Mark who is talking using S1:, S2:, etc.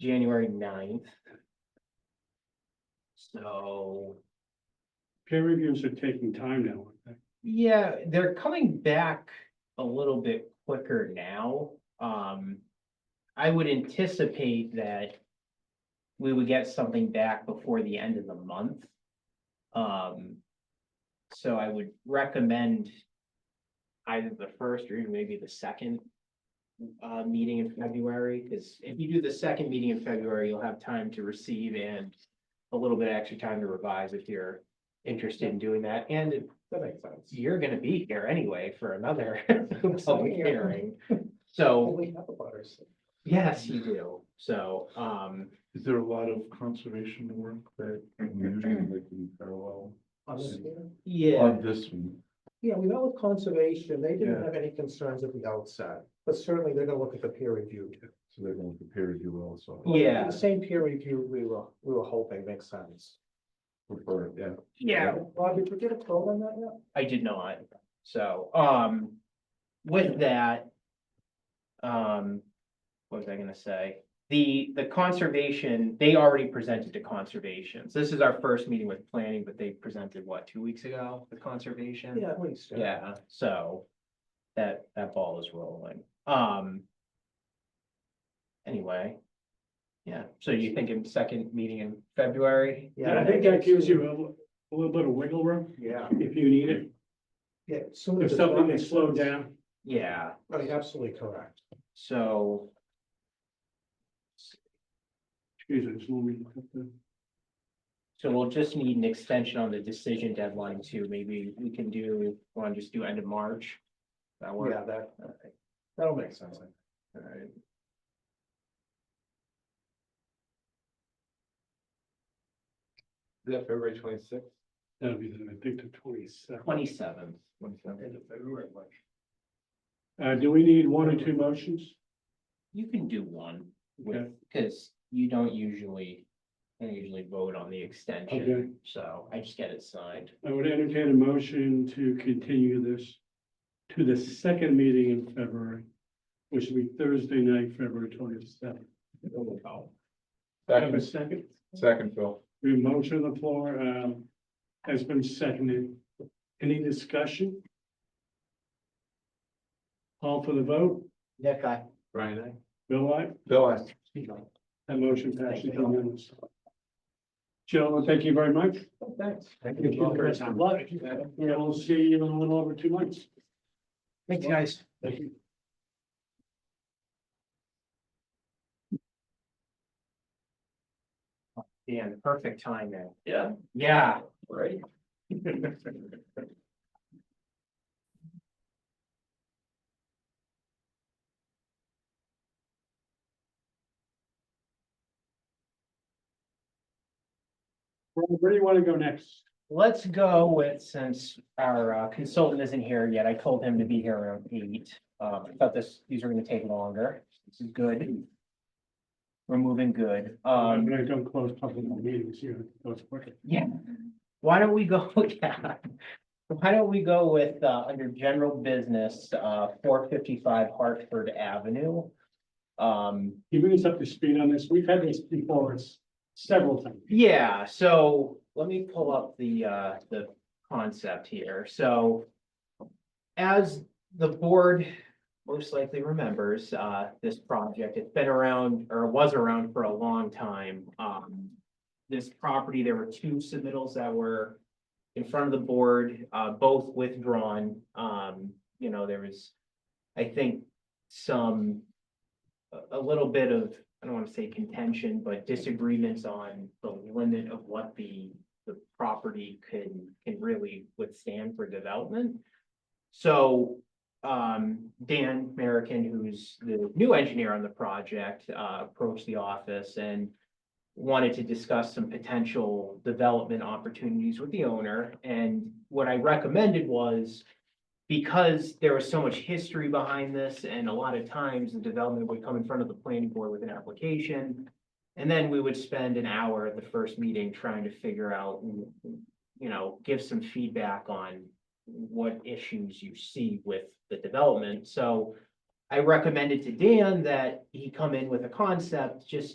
S1: January 9th. So,
S2: Peer reviews are taking time now. aren't they?
S1: yeah, they're coming back a little bit quicker now. Um, I would anticipate that we would get something back before the end of the month. Um, so I would recommend either the first or even maybe the second uh, meeting in February, because if you do the second meeting in February, you'll have time to receive and a little bit extra time to revise if you're interested in doing that. And it-
S3: That makes sense.
S1: you're gonna be here anyway for another
S3: I'm
S1: public
S3: here.
S1: hearing. So,
S3: We have a butters.
S1: yes, you do. So, um,
S4: Is there a lot of conservation work that we usually like in parallel
S1: yeah,
S4: on this one?
S3: Yeah, we know with conservation, they didn't
S4: Yeah.
S3: have any concerns at the outset, but certainly they're gonna look at the peer review. too.
S4: So they're going to prepare you also.
S1: Yeah.
S3: The same peer review we were, we were hoping makes sense.
S4: Prefer, yeah.
S1: yeah,
S3: Bob, did you get a call on that yet?
S1: I did not. So, um, with that, um, what was I gonna say? The, the conservation, they already presented to conservation. So this is our first meeting with planning, but they presented, what, two weeks ago with conservation?
S3: Yeah, at least.
S1: Yeah, so that, that ball is rolling. Um. Anyway. Yeah, so you think in second meeting in February?
S3: Yeah.
S2: I think that gives you a little- a little bit of wiggle room
S3: Yeah.
S2: if you need it,
S3: Yeah. soon as
S2: if
S3: it's
S2: something
S3: done,
S2: is
S3: it's
S2: slowed
S3: done.
S2: down.
S1: Yeah,
S3: Right, absolutely correct.
S1: so,
S2: Excuse me, just let me look at the.
S1: so we'll just need an extension on the decision deadline too. Maybe we can do, want to just do end of March? That work?
S3: Yeah, that,
S1: Okay,
S3: that'll make sense.
S1: all right.
S5: Is that February twenty-sixth?
S2: That'll be, the- I think, the twenty-seventh.
S1: Twenty-seventh.
S5: End of February, March.
S2: Uh, do we need one or two motions?
S1: You can do one with,
S2: Okay.
S1: because you don't usually, I don't usually vote on the
S2: Okay.
S1: extension, so I just get it signed.
S2: I would entertain a motion to continue this to the second meeting in February, which will be Thursday night, February twenty-seventh. Have a
S5: Second,
S2: second?
S5: second, Phil.
S2: We have a motion on the floor, um, has been seconded. Any discussion? Call for the vote,
S3: Nick, I.
S5: Brian, eh? I.
S2: Bill, I,
S5: Bill, I.
S2: that motion passes unanimously. Gentlemen, thank you very much.
S3: Thanks.
S5: Thank
S2: Good luck. Yeah, we'll see you in a little over two months.
S3: Thanks, guys.
S2: Thank you.
S1: Yeah, perfect timing.
S5: Yeah.
S1: Yeah.
S5: Right.
S2: Where where do you want to go next?
S1: Let's go with, since our uh, consultant isn't here yet, I told him to be here around eight. Um, I thought this, these are gonna take longer. This is good. We're moving good.
S2: Um,
S1: Um,
S2: but I don't close public meetings here. Those work.
S1: yeah. Why don't we go, yeah. Why don't we go with, uh, under general business, uh, four fifty-five Hartford Avenue? Um,
S2: You bring us up to speed on this. We've had this before us several times.
S1: Yeah, so let me pull up the, uh, the concept here. So as the board most likely remembers, uh, this project, it's been around or was around for a long time. Um, this property, there were two submittals that were in front of the board, uh, both withdrawn. Um, you know, there was, I think, some a- a little bit of, I don't want to say contention, but disagreements on the limit of what the, the property can, can really withstand for development. So, um, Dan Merrickin, who's the new engineer on the project, uh, approached the office and wanted to discuss some potential development opportunities with the owner. And what I recommended was because there was so much history behind this, and a lot of times the development would come in front of the planning board with an application. And then we would spend an hour at the first meeting trying to figure out, you know, give some feedback on what issues you see with the development. So I recommended to Dan that he come in with a concept, just